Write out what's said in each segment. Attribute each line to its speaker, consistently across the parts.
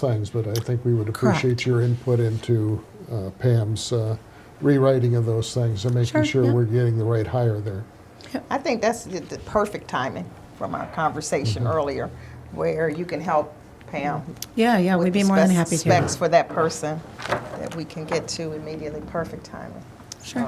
Speaker 1: things, but I think we would appreciate your input into uh, Pam's uh, rewriting of those things and making
Speaker 2: Sure,
Speaker 1: sure
Speaker 2: yeah.
Speaker 1: we're getting the right hire there.
Speaker 3: I think that's the, the perfect timing from our conversation earlier, where you can help Pam.
Speaker 2: Yeah, yeah,
Speaker 3: with
Speaker 2: we'd
Speaker 3: the
Speaker 2: be more than
Speaker 3: spec-
Speaker 2: happy
Speaker 3: Specs
Speaker 2: to.
Speaker 3: for that person that we can get to immediately, perfect timing.
Speaker 2: Sure.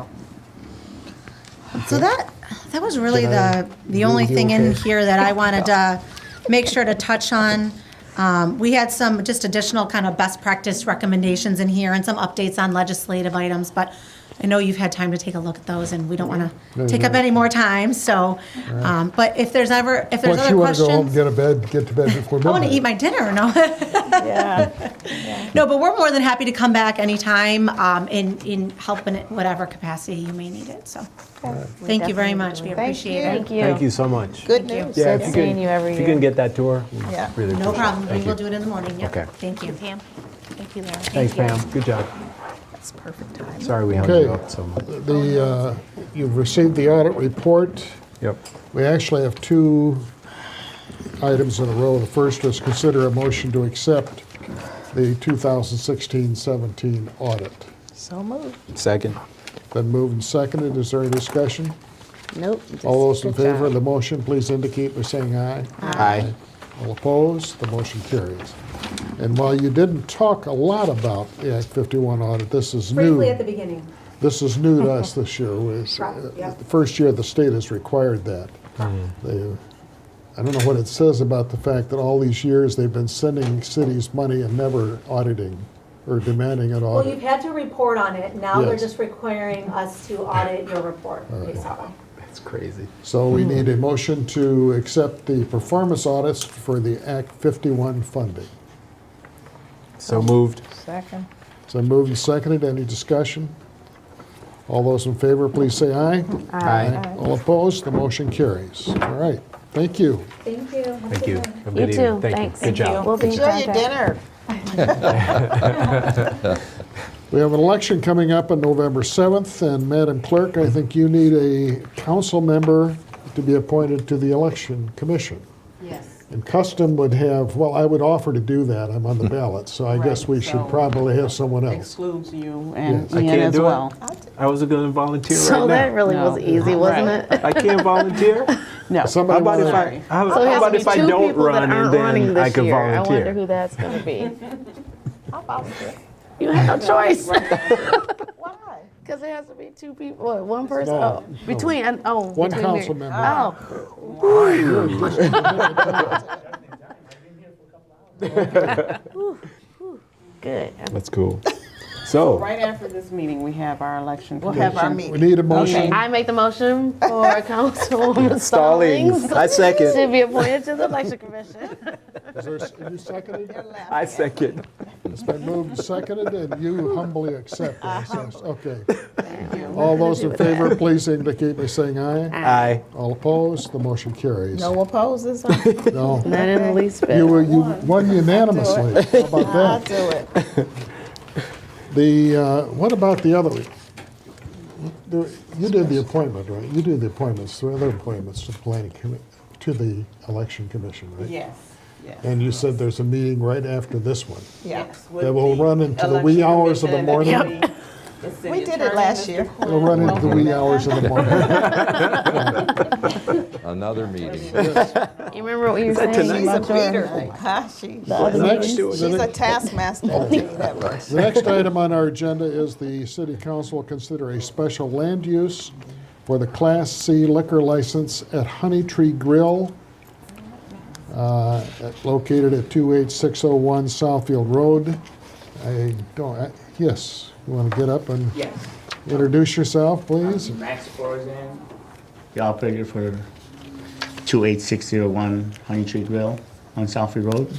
Speaker 3: So-
Speaker 2: So that, that was really
Speaker 1: Did I
Speaker 2: the, the only
Speaker 1: leave you
Speaker 2: thing in
Speaker 1: okay?
Speaker 2: here that I wanted to make sure to touch on. Um, We had some just additional kind of best practice recommendations in here and some updates on legislative items, but I know you've had time to take a look at those and we don't want
Speaker 1: No,
Speaker 2: to take up
Speaker 1: no.
Speaker 2: any more time, so. um, But if there's ever, if there's
Speaker 1: Plus,
Speaker 2: other
Speaker 1: you want to go home,
Speaker 2: questions.
Speaker 1: get a bed, get to bed before
Speaker 2: I
Speaker 1: midnight.
Speaker 2: want to eat my dinner, no?
Speaker 3: Yeah,
Speaker 2: No, but we're more than happy to come back anytime um, in, in help in whatever capacity you may need it, so. Thank you very much, we
Speaker 3: thank
Speaker 2: appreciate it.
Speaker 3: you.
Speaker 4: Thank you.
Speaker 5: Thank you so much.
Speaker 3: Good news.
Speaker 5: Yeah,
Speaker 4: Good
Speaker 5: if you
Speaker 4: seeing
Speaker 5: can-
Speaker 4: you every
Speaker 5: If you
Speaker 4: year.
Speaker 5: can get that tour. we
Speaker 3: Yeah.
Speaker 5: really
Speaker 2: No
Speaker 5: appreciate it.
Speaker 2: problem, we
Speaker 5: Thank
Speaker 2: will
Speaker 5: you.
Speaker 2: do it in the morning, yep.
Speaker 5: Okay.
Speaker 2: Thank you.
Speaker 6: Pam. Thank you, Laura.
Speaker 5: Thanks,
Speaker 6: you.
Speaker 5: Pam. Good job.
Speaker 3: That's perfect timing.
Speaker 5: Sorry we held
Speaker 1: Okay.
Speaker 5: you up so much.
Speaker 1: The, uh, you've received the audit report.
Speaker 5: Yep.
Speaker 1: We actually have two items in a row. The first is consider a motion to accept the 2016-17 audit.
Speaker 3: So moved.
Speaker 5: Second.
Speaker 1: Been moved and seconded. Is there any discussion?
Speaker 4: Nope.
Speaker 1: All those in
Speaker 4: Good job.
Speaker 1: favor of the motion, please indicate by saying aye.
Speaker 5: Aye.
Speaker 1: All opposed, the motion carries. And while you didn't talk a lot about the Act 51 audit, this is new.
Speaker 2: beginning.
Speaker 1: This is new to us this year. It's uh,
Speaker 2: yeah.
Speaker 1: the first year the state has required that. They- I don't know what it says about the fact that all these years they've been sending cities money and never auditing or demanding an
Speaker 7: Well, you've
Speaker 1: audit.
Speaker 7: had to report on it, now they're
Speaker 1: Yes.
Speaker 7: just requiring us to audit your report, basically.
Speaker 5: That's crazy.
Speaker 1: So we need a motion to accept the performance audits for the Act 51 funding.
Speaker 5: So moved.
Speaker 3: Second.
Speaker 1: So moved and seconded. Any discussion? All those in favor, please say aye.
Speaker 5: Aye.
Speaker 1: All opposed, the motion carries. All right, thank you.
Speaker 7: Thank you. Have a
Speaker 5: Thank
Speaker 7: good
Speaker 5: you.
Speaker 7: night.
Speaker 5: Have a
Speaker 4: You
Speaker 5: good evening.
Speaker 4: too.
Speaker 5: Thank you.
Speaker 4: Thanks.
Speaker 5: Good job.
Speaker 4: We'll be in
Speaker 3: Enjoy your
Speaker 4: contact.
Speaker 3: dinner.
Speaker 1: We have an election coming up on November 7th, and Madam Clerk, I think you need a council member to be appointed to the Election Commission.
Speaker 7: Yes.
Speaker 1: And custom would have, well, I would offer to do that, I'm on the ballot, so I guess we should
Speaker 8: Right, so-
Speaker 1: probably have someone else.
Speaker 8: excludes you and
Speaker 1: Yes.
Speaker 5: I
Speaker 8: Ian
Speaker 5: can't
Speaker 8: as
Speaker 5: do
Speaker 8: well.
Speaker 5: it. I was going to volunteer
Speaker 4: So that
Speaker 5: right now.
Speaker 4: really was
Speaker 8: No.
Speaker 4: easy, wasn't
Speaker 8: Right.
Speaker 4: it?
Speaker 5: I can't volunteer.
Speaker 8: No.
Speaker 1: Somebody
Speaker 5: How about if
Speaker 1: wanna-
Speaker 5: I,
Speaker 8: Sorry.
Speaker 5: how
Speaker 4: So it
Speaker 5: how
Speaker 4: has
Speaker 5: about
Speaker 4: to be
Speaker 5: if I
Speaker 4: two
Speaker 5: don't
Speaker 4: people that
Speaker 5: run
Speaker 4: aren't
Speaker 5: and
Speaker 4: running
Speaker 5: then I
Speaker 4: this
Speaker 5: could
Speaker 4: year. I wonder
Speaker 5: volunteer?
Speaker 4: who that's going to be.
Speaker 3: I'll volunteer.
Speaker 4: You have no choice
Speaker 3: Why?
Speaker 4: because there has to be two people, what, one person.
Speaker 1: No,
Speaker 4: Oh, between and oh,
Speaker 1: One
Speaker 4: between me.
Speaker 1: council member.
Speaker 4: Oh, good.
Speaker 5: That's cool. So,
Speaker 8: Right after this meeting, we have our election
Speaker 3: We'll have our
Speaker 8: commission.
Speaker 1: We
Speaker 3: meeting.
Speaker 1: need a motion.
Speaker 4: I make the motion for Councilwoman
Speaker 5: Stallings.
Speaker 4: Stallings
Speaker 5: I second.
Speaker 4: to be appointed to the election commission.
Speaker 1: Is there, s- you seconded?
Speaker 5: I second.
Speaker 1: It's been moved and seconded, and you humbly accept this, yes, okay. All those in favor, please indicate by saying aye.
Speaker 5: Aye.
Speaker 1: All opposed, the motion carries.
Speaker 3: No opposes? I'll
Speaker 1: No.
Speaker 4: Not in the least bit.
Speaker 1: You were, you won unanimously. How about
Speaker 3: do
Speaker 1: that?
Speaker 3: it.
Speaker 1: The, uh, what about the other? there- You did the appointment, right? You do the appointments, the other appointments to the planning commi, to the election commission, right?
Speaker 8: Yes, yes.
Speaker 1: And you said there's a meeting right after this one.
Speaker 3: Yes.
Speaker 8: with
Speaker 1: That will
Speaker 8: the
Speaker 1: run into the wee
Speaker 8: election
Speaker 1: hours of the
Speaker 8: commission and
Speaker 1: morning.
Speaker 8: the- the city
Speaker 3: We did it
Speaker 8: attorney,
Speaker 3: last
Speaker 8: Mr.
Speaker 3: year.
Speaker 8: Quinn.
Speaker 1: It'll run into the wee hours of the morning.
Speaker 9: Another meeting.
Speaker 4: You remember what you were
Speaker 3: She's
Speaker 4: saying?
Speaker 3: a beater, huh? She,
Speaker 1: The next-
Speaker 3: she's a taskmaster. I'll tell you that much.
Speaker 1: The next item on our agenda is the city council will consider a special land use for the Class C liquor license at Honey Tree Grill, uh, at- located at 28601 Southfield Road. I don't, I- yes, you want to get up and
Speaker 10: Yes.
Speaker 1: introduce yourself, please?
Speaker 10: Max Florzan, the operator for 28601 Honey Tree Grill on Southfield Road.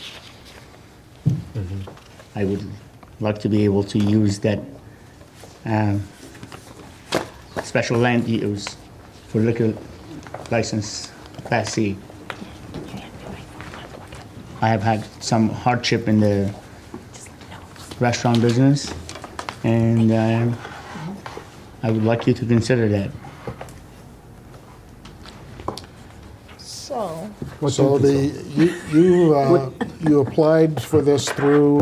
Speaker 10: I would like to be able to use that um, special land use for liquor license Class C. I have had some hardship in the restaurant business, and um, I would like you to consider that.
Speaker 3: So.
Speaker 1: So the, you, you, uh, you applied for this through